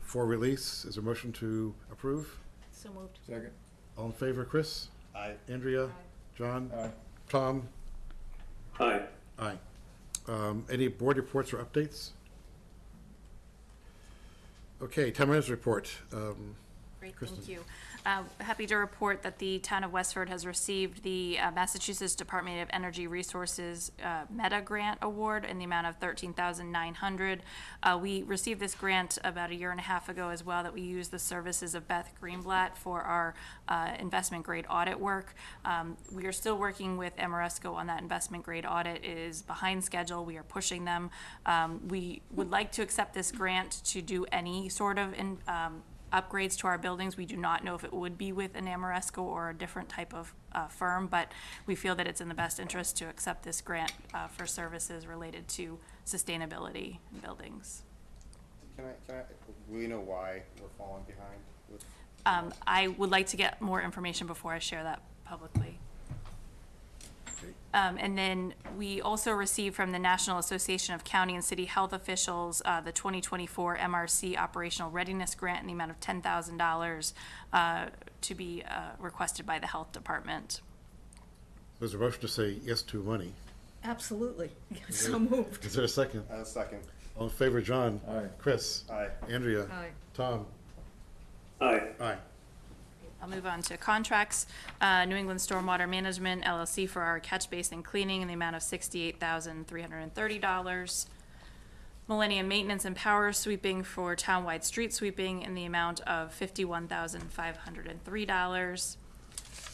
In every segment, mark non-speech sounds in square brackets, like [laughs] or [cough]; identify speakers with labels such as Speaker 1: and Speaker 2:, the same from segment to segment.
Speaker 1: for release. Is there a motion to approve?
Speaker 2: So moved.
Speaker 3: Second.
Speaker 1: All in favor, Chris?
Speaker 4: Aye.
Speaker 1: Andrea? John?
Speaker 3: Aye.
Speaker 1: Tom?
Speaker 5: Aye.
Speaker 1: Aye. Um, Any board reports or updates? Okay, town manager's report. Um,
Speaker 2: Great,
Speaker 1: Kristen.
Speaker 2: thank you. Uh, Happy to report that the town of Westford has received the uh, Massachusetts Department of Energy Resources uh, Meta Grant Award in the amount of thirteen thousand nine hundred. Uh, We received this grant about a year and a half ago as well, that we used the services of Beth Greenblatt for our uh, investment grade audit work. Um, We are still working with Amoresco on that investment grade audit. It is behind schedule. We are pushing them. Um, We would like to accept this grant to do any sort of in- um, upgrades to our buildings. We do not know if it would be with an Amoresco or a different type of uh, firm, but we feel that it's in the best interest to accept this grant uh, for services related to sustainability in buildings.
Speaker 4: Can I, can I, will you know why we're falling behind with?
Speaker 2: Um, I would like to get more information before I share that publicly. Um, and then we also received from the National Association of County and City Health Officials, uh, the twenty twenty-four MRC Operational Readiness Grant in the amount of ten thousand dollars, uh, to be, uh, requested by the Health Department.
Speaker 1: There's a motion to say yes to money. [laughs]
Speaker 6: Absolutely. So moved.
Speaker 1: Is there a second?
Speaker 4: Uh, second.
Speaker 1: All in favor, John?
Speaker 3: Aye.
Speaker 1: Chris?
Speaker 4: Aye.
Speaker 1: Andrea?
Speaker 6: Aye.
Speaker 1: Tom?
Speaker 5: Aye.
Speaker 1: Aye.
Speaker 2: I'll move on to contracts. Uh, New England Stormwater Management LLC for our catch basin cleaning in the amount of sixty-eight thousand, three hundred and thirty dollars. Millennium Maintenance and Power Sweeping for townwide street sweeping in the amount of fifty-one thousand, five hundred and three dollars.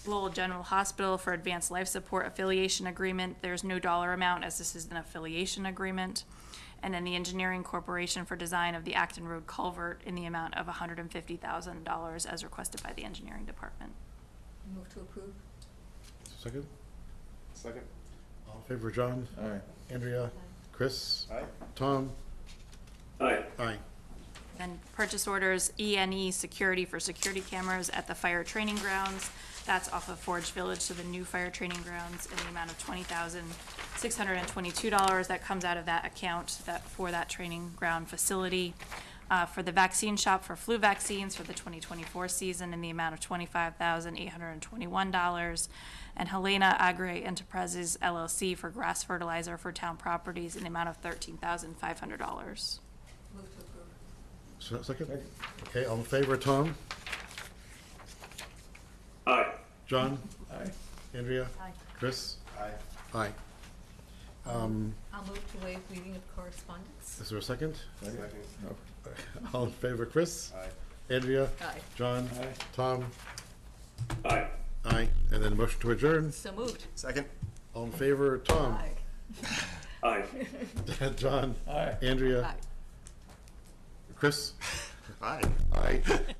Speaker 2: Lowell General Hospital for Advanced Life Support Affiliation Agreement. There's no dollar amount as this is an affiliation agreement. And then the Engineering Corporation for Design of the Acton Road Culvert in the amount of hundred and fifty thousand dollars as requested by the Engineering Department.
Speaker 6: Move to approve?
Speaker 1: Second?
Speaker 4: Second.
Speaker 1: All in favor, John?
Speaker 3: Aye.
Speaker 1: Andrea? Chris?
Speaker 4: Aye.
Speaker 1: Tom?
Speaker 5: Aye.
Speaker 1: Aye.
Speaker 2: Then purchase orders, ENE Security for security cameras at the fire training grounds. That's off of Forge Village, so the new fire training grounds in the amount of twenty thousand, six hundred and twenty-two dollars. That comes out of that account that, for that training ground facility. Uh, for the vaccine shop for flu vaccines for the twenty twenty-four season in the amount of twenty-five thousand, eight hundred and twenty-one dollars. And Helena Agri Enterprises LLC for grass fertilizer for town properties in the amount of thirteen thousand, five hundred dollars.
Speaker 6: Move to approve.
Speaker 1: So- Second?
Speaker 3: Second.
Speaker 1: Okay, all in favor, Tom?
Speaker 5: Aye.
Speaker 1: John?
Speaker 3: Aye.
Speaker 1: Andrea?
Speaker 6: Aye.
Speaker 1: Chris?
Speaker 4: Aye.
Speaker 1: Aye. Um,
Speaker 6: I'll move to waive reading of correspondence.
Speaker 1: Is there a second?
Speaker 3: Second.
Speaker 4: Second.
Speaker 3: No.
Speaker 1: [laughs] All in favor, Chris?
Speaker 4: Aye.
Speaker 1: Andrea?
Speaker 6: Aye.
Speaker 1: John?
Speaker 3: Aye.
Speaker 1: Tom?
Speaker 5: Aye.
Speaker 1: Aye. And then a motion to adjourn.
Speaker 6: So moved.
Speaker 4: Second.
Speaker 1: All in favor, Tom?
Speaker 6: Aye.
Speaker 5: Aye.
Speaker 1: [laughs] John?
Speaker 3: Aye.
Speaker 1: Andrea?
Speaker 6: Aye.
Speaker 1: Chris?
Speaker 4: Aye.
Speaker 1: Aye.